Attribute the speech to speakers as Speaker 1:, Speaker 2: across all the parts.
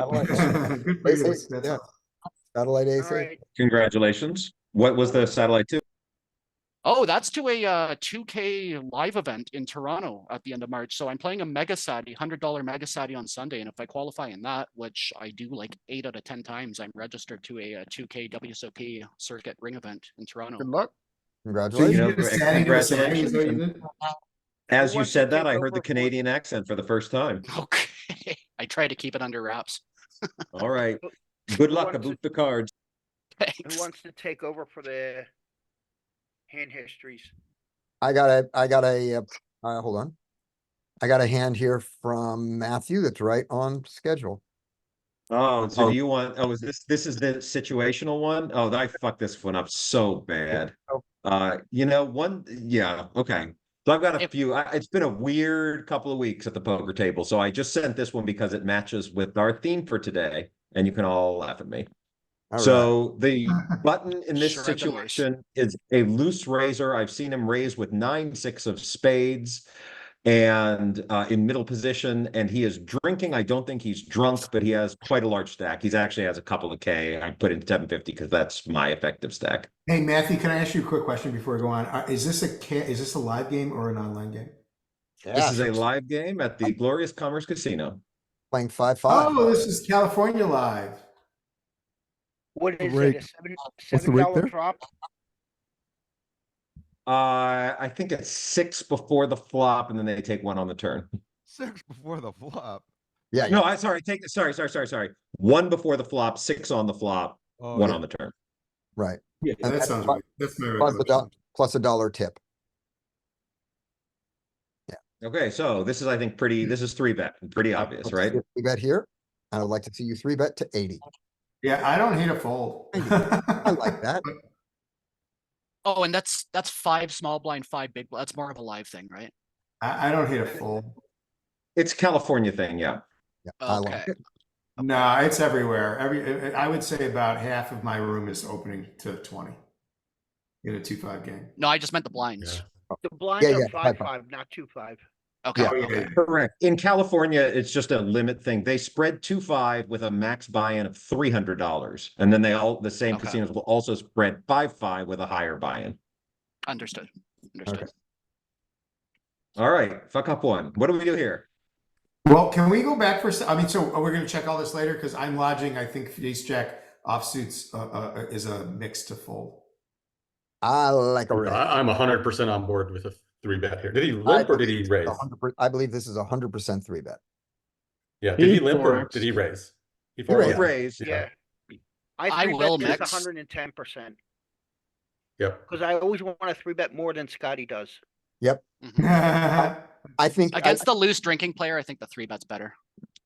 Speaker 1: satellite.
Speaker 2: Good for you.
Speaker 1: Basically,
Speaker 2: That's
Speaker 1: yeah.
Speaker 2: all.
Speaker 1: Satellite
Speaker 3: All
Speaker 1: AC.
Speaker 3: right.
Speaker 4: Congratulations. What was the satellite to?
Speaker 3: Oh, that's to a uh, 2K live event in Toronto at the end of March. So I'm playing a Mega Sati, $100 Mega Sati on Sunday. And if I qualify in that, which I do like eight out of 10 times, I'm registered to a, uh 2K WSOP circuit ring event in Toronto.
Speaker 5: Good luck.
Speaker 2: So you
Speaker 1: Congratulations.
Speaker 4: know,
Speaker 2: did a Saturday to a Saturday, is that what you did?
Speaker 4: As you
Speaker 5: Everyone
Speaker 4: said that,
Speaker 5: take
Speaker 4: I
Speaker 5: over
Speaker 4: heard the
Speaker 5: for-
Speaker 4: Canadian accent for the first time.
Speaker 3: Okay. I try to keep it under wraps.
Speaker 4: All right. Good luck. I
Speaker 5: What's it-
Speaker 4: boot the cards.
Speaker 5: Who
Speaker 3: Thanks.
Speaker 5: wants to take over for the hand histories?
Speaker 1: I got a, I got a, uh, uh, hold on. I got a hand here from Matthew that's right on schedule.
Speaker 4: Oh, so you want, oh, is this, this is the situational one? Oh, I fucked this one up so bad.
Speaker 1: Oh.
Speaker 4: Uh, you know, one, yeah, okay. So I've got a
Speaker 3: If-
Speaker 4: few, I, it's been a weird couple of weeks at the poker table, so I just sent this one because it matches with our theme for today, and you can all laugh at me.
Speaker 1: All right.
Speaker 4: So the button in this
Speaker 3: Sure, I've been worse.
Speaker 4: situation is a loose raiser. I've seen him raise with nine, six of spades and uh, in middle position, and he is drinking. I don't think he's drunk, but he has quite a large stack. He's actually has a couple of K. I put in 750 because that's my effective stack.
Speaker 2: Hey, Matthew, can I ask you a quick question before I go on? Uh, Is this a, ca- is this a live game or an online game?
Speaker 1: Yeah,
Speaker 4: This is a live game at the Glorious Commerce Casino.
Speaker 1: Playing five, five.
Speaker 2: Oh, this is California Live.
Speaker 5: What
Speaker 6: The
Speaker 5: is
Speaker 6: rate-
Speaker 5: it? A seven
Speaker 6: what's the
Speaker 5: seven
Speaker 6: rate
Speaker 5: dollar
Speaker 6: there?
Speaker 5: drop?
Speaker 4: Uh, I think it's six before the flop, and then they take one on the turn.
Speaker 6: Six before the flop.
Speaker 1: Yeah,
Speaker 4: No, I sorry, take sorry, sorry, sorry, sorry. One before the flop, six on the flop,
Speaker 6: Oh,
Speaker 4: one
Speaker 6: yeah.
Speaker 4: on the turn.
Speaker 1: right.
Speaker 2: Yeah,
Speaker 1: And
Speaker 2: that
Speaker 1: that's
Speaker 2: sounds
Speaker 1: fi-
Speaker 2: right. That's my
Speaker 1: Plus a dollar,
Speaker 2: recollection.
Speaker 1: plus a dollar tip.
Speaker 4: Okay, so this is, I think, pretty, this is three bet, pretty obvious, right?
Speaker 1: We bet here. and I'd like to see you three bet to eighty.
Speaker 2: Yeah, I don't hate a fold.
Speaker 1: I like that.
Speaker 3: Oh, and that's that's five small blind, five big. bl- That's more of a live thing, right?
Speaker 2: I, I don't hate a fold.
Speaker 4: It's California thing, yeah.
Speaker 1: Yeah, I like
Speaker 3: Okay.
Speaker 1: it.
Speaker 2: No, it's everywhere. Every, I I would say about half of my room is opening to twenty in a two-five game.
Speaker 3: No, I just meant the blinds.
Speaker 5: The blinds
Speaker 1: yeah,
Speaker 5: are
Speaker 1: five,
Speaker 5: five
Speaker 1: five.
Speaker 5: five, not two five.
Speaker 3: Okay.
Speaker 2: Oh, yeah.
Speaker 4: Correct. In California, it's just a limit thing. They spread two five with a max buy-in of three hundred dollars. And then they all, the same
Speaker 3: Okay.
Speaker 4: casinos will also spread five five with a higher buy-in.
Speaker 3: Understood. Understood.
Speaker 4: All right, fuck up one. What do we do here?
Speaker 2: Well, can we go back for, a se- I mean, so are we gonna check all this later? Cause I'm lodging, I think ace jack offsuits, uh, uh, is a mix to fold.
Speaker 1: I like a raise.
Speaker 7: I, I'm hundred percent on board with a three bet here. Did he limp or did he raise?
Speaker 1: 100% I believe this is a hundred percent three bet.
Speaker 7: Yeah, did
Speaker 6: He
Speaker 7: he limp or
Speaker 6: forks.
Speaker 7: did he raise? He
Speaker 1: Right.
Speaker 4: Raise,
Speaker 7: forks.
Speaker 4: raise.
Speaker 5: Yeah.
Speaker 3: I
Speaker 5: three bet
Speaker 3: will
Speaker 5: just
Speaker 3: mix.
Speaker 5: 110%
Speaker 7: Yep.
Speaker 5: because I always want to three bet more than Scotty does.
Speaker 3: Mhm.
Speaker 1: I think, I-
Speaker 3: Against the loose drinking player, I think the three bet's better.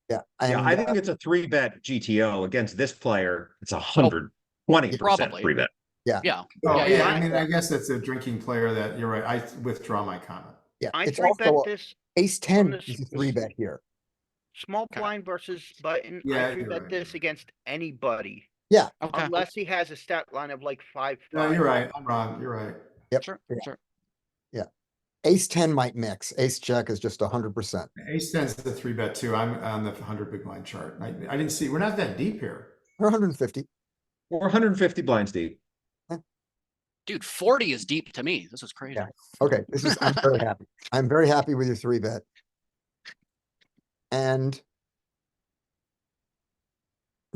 Speaker 1: yeah.
Speaker 4: Yeah,
Speaker 1: and,
Speaker 4: I
Speaker 1: uh,
Speaker 4: think it's a three bet GTO against this player. It's a hundred twenty percent
Speaker 3: Probably.
Speaker 4: three bet.
Speaker 1: Uh,
Speaker 2: Oh,
Speaker 3: Yeah,
Speaker 2: yeah,
Speaker 5: yeah.
Speaker 2: I mean, I guess that's a drinking player that, you're right, I withdraw my comment.
Speaker 1: Yeah,
Speaker 5: I
Speaker 1: it's
Speaker 5: three bet
Speaker 1: also
Speaker 5: this
Speaker 1: ace ten
Speaker 5: this-
Speaker 1: is a three bet here.
Speaker 5: small
Speaker 3: Okay.
Speaker 5: blind versus button.
Speaker 2: Yeah,
Speaker 5: I three
Speaker 2: you're
Speaker 5: bet
Speaker 2: right.
Speaker 5: this against anybody
Speaker 3: Okay.
Speaker 5: unless he has a stat line of like five.
Speaker 2: No,
Speaker 5: five.
Speaker 2: you're right, I'm wrong, you're right.
Speaker 1: Yep,
Speaker 3: Sure.
Speaker 1: yeah.
Speaker 3: Sure.
Speaker 1: Ace ten might mix. Ace check is just a hundred percent.
Speaker 2: Ace ten's the three bet too, I'm on the hundred big blind chart. I, I didn't see, we're not that deep here.
Speaker 1: Or hundred and fifty.
Speaker 4: Or hundred and fifty blinds deep.
Speaker 3: Dude, 40 is deep to me. This is crazy.
Speaker 1: Yeah. Okay, this is, I'm very happy. I'm very happy with your three bet. And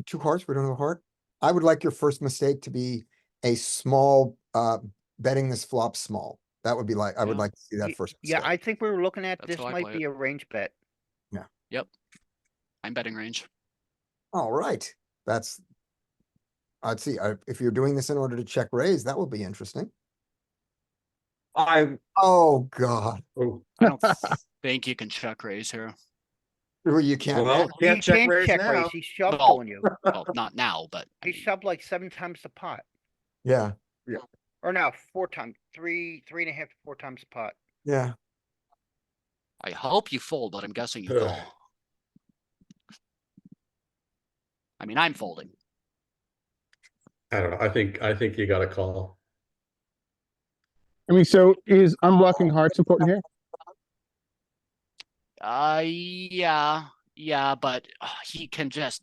Speaker 1: two hearts, we don't have a heart. I would like your first mistake to be a small, uh, betting this flop small. That would be like, I would
Speaker 3: Yeah.
Speaker 1: like to see that
Speaker 5: Ye-
Speaker 1: first.
Speaker 5: Yeah,
Speaker 1: mistake.
Speaker 5: I think we were looking at
Speaker 3: That's
Speaker 5: this
Speaker 3: how I play
Speaker 5: might
Speaker 3: it.
Speaker 5: be a range bet.
Speaker 3: I'm betting range.
Speaker 1: All right, that's. I'd see, I- if you're doing this in order to check raise, that will be interesting.
Speaker 4: I,
Speaker 1: Oh, God,
Speaker 4: oh,
Speaker 3: I don't think you can check raise here.
Speaker 1: Well, you can't.
Speaker 4: well, can't
Speaker 5: he
Speaker 4: check
Speaker 5: can't
Speaker 4: raise
Speaker 5: check
Speaker 4: now.
Speaker 5: raise. He shoved
Speaker 3: No.
Speaker 5: on you.
Speaker 3: Well, not now, but I
Speaker 5: He
Speaker 3: mean,
Speaker 5: shoved like seven times the pot,
Speaker 1: Yeah,
Speaker 5: or no, four times, three, three and a half to four times the pot.
Speaker 1: yeah.
Speaker 3: I hope you fold, but I'm guessing you
Speaker 7: Ugh.
Speaker 3: call. I mean, I'm folding.
Speaker 7: I don't know. I think, I think you got a call.
Speaker 6: I mean, so is unblocking hearts important here?
Speaker 3: Uh, yeah, yeah, but uh, he can just